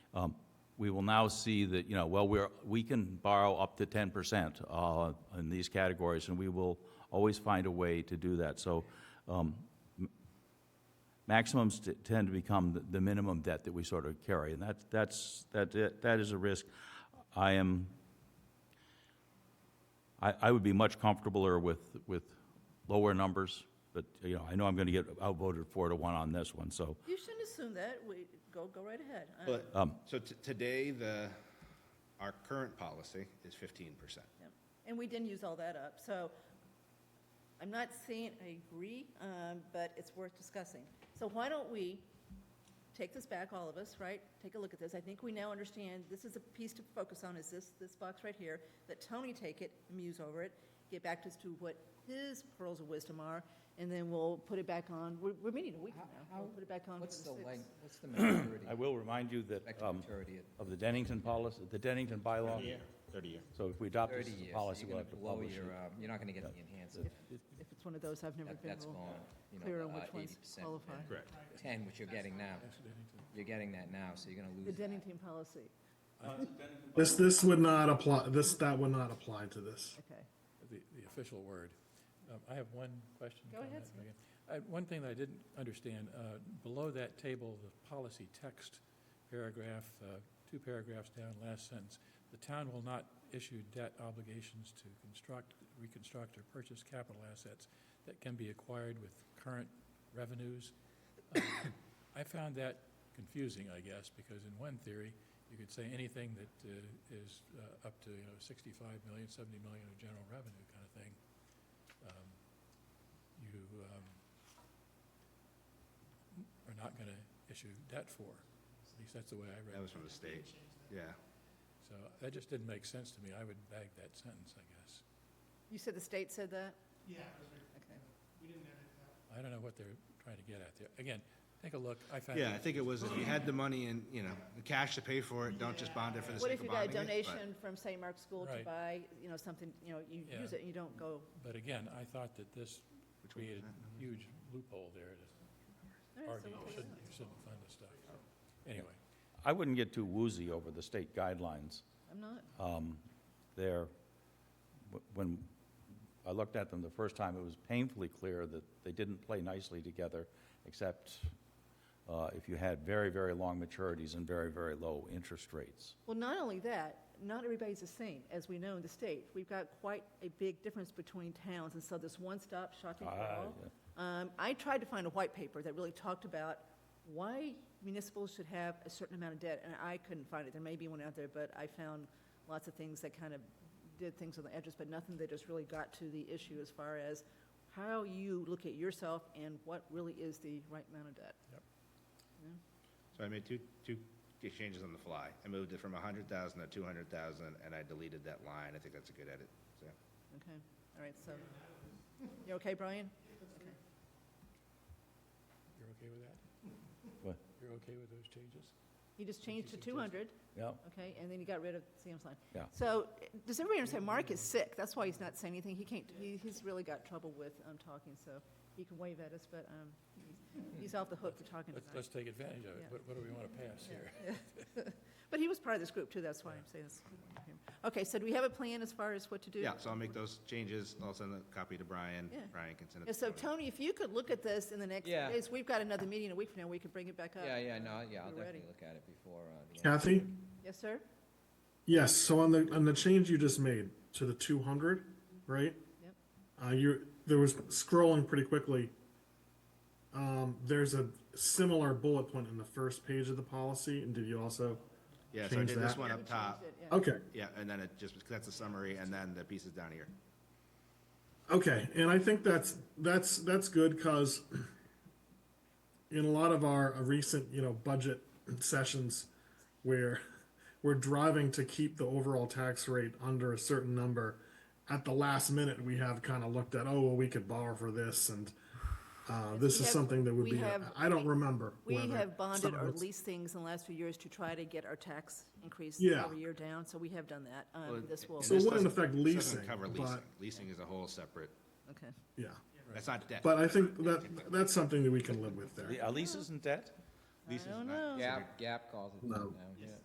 um, we will now see that, you know, well, we're, we can borrow up to 10% uh, in these categories, and we will always find a way to do that. So um, m- maximums t- tend to become the- the minimum debt that we sort of carry, and that, that's, that, that is a risk. I am, I, I would be much comfortabler with, with lower numbers, but, you know, I know I'm going to get outvoted four to one on this one, so. You shouldn't assume that. We, go, go right ahead. I- But, Um, so t- today, the, our current policy is fifteen percent. yeah. And we didn't use all that up, so I'm not saying I agree, um, but it's worth discussing. So why don't we take this back, all of us, right? Take a look at this. I think we now understand, this is a piece to focus on, is this, this box right here. Let Tony take it, muse over it, get back to us to what his pearls of wisdom are, and then we'll put it back on. We're, we're meeting a week from now. We'll put it back on for the What's the sixth. length, what's the maturity, I will remind you that, expected um, maturity at of the Dennington policy, the Dennington bylaw. thirty year. So if we adopt this 30 as years? a so policy, you're we'll gonna have to blow publish it. your, um, You're not going to get the enhancement. If it's one of those, I've never That- been That's real gone, you know. clear on uh, which ones 80% qualify. and Correct. Ten, which you're getting now. You're getting that now, so you're going to The lose that. Dennington policy, This, this would not apply, this, that would not apply to this. okay. the, the official word. Um, I have one question. Go ahead, comment, sir. Megan. I, one thing that I didn't understand, uh, below that table, the policy text paragraph, uh, two paragraphs down, last sentence, the town will not issue debt obligations to construct, reconstruct, or purchase capital assets that can be acquired with current revenues. Um, I found that confusing, I guess, because in one theory, you could say anything that uh, is uh, up to, you know, 65 million, 70 million of general revenue kind of thing. Um, You um, are not going to issue debt for, at least that's the way I That read it. was from the state, yeah. So that just didn't make sense to me. I would bag that sentence, I guess. You said the state said that? I don't know what they're trying to get at there. Again, take a look. I found. Yeah, I think it was, if you had the money and, you know, the cash to pay for it, don't just bond it for the What if sake of you got a bonding it, but- donation from St. Mark's School to Right. buy, you know, something, you know, you Yeah. use it, and you don't go, But again, I thought that this Which one was created that? a huge loophole there All right, to so argue we'll you put it shouldn't, you shouldn't fund this stuff. Oh. Anyway, I wouldn't get too woozy over the state guidelines. I'm not. Um, They're, wh- when I looked at them the first time, it was painfully clear that they didn't play nicely together, except uh, if you had very, very long maturities and very, very low interest rates. Well, not only that, not everybody's the same, as we know in the state. We've got quite a big difference between towns, and so this one-stop shopping for Ah, all. Um, I tried to find a white paper that really talked about why municipals should have a certain amount of debt, and I couldn't find it. There may be one out there, but I found lots of things that kind of did things on the edges, but nothing that just really got to the issue as far as how you look at yourself and what really is the right amount of debt. So I made two, two changes on the fly. I moved it from a hundred thousand to two hundred thousand, and I deleted that line. I think that's a good edit, so. Okay, all right, so, you okay, Brian? you're okay with that? What? You're okay with those changes? You just changed to 200, Yeah, okay, and then you got rid of Sam's line. Yeah. So, does everybody understand, Mark is sick, that's why he's not saying anything, he can't, he, he's really got trouble with, um, talking, so he can wave at us, but, um, he's- he's off the hook for talking Let's, tonight. let's take advantage of it. Yeah. What, what do we want to pass here? But he was part of this group too, that's why I'm saying this. Okay, so do we have a plan as far as what to do? Yeah, so I'll make those changes. I'll send a copy to Brian. Yeah. Brian can send it. Yeah, to so Tony. Tony, if you could look at this in the next few Yeah. days, we've got another meeting in a week from now, we could bring it back up. Yeah, yeah, no, yeah, I'll We're ready. definitely look at it before. uh, the end. Kathy? Yes, sir? Yes, so on the, on the change you just made to the two hundred, right? Yep. Uh, you, there was scrolling pretty quickly. Um, there's a similar bullet point in the first page of the policy, and did you also? Yeah, so I change did this that. one We up changed top. it, yeah. Okay, Yeah, and then it just, that's the summary, and then the pieces down here. Okay, and I think that's that's that's good because in a lot of our uh, recent you know budget sessions where we're driving to keep the overall tax rate under a certain number, at the last minute we have kind of looked at oh well we could borrow for this and uh, this we is have- something that would we be have- I don't remember We whether have bonded some or of it's- leased things in the last few years to try to get our tax increase Yeah. every year down, so we have done that. Um, Well, This will, and So this it wouldn't doesn't- affect this doesn't leasing, Cover but- leasing. Leasing is a whole separate, okay. yeah that's not debt. but I think that that's something that we can live with there Are leases in debt? Leasing is don't not- know. Yeah. Gap, Gap calls it that No. now, yeah.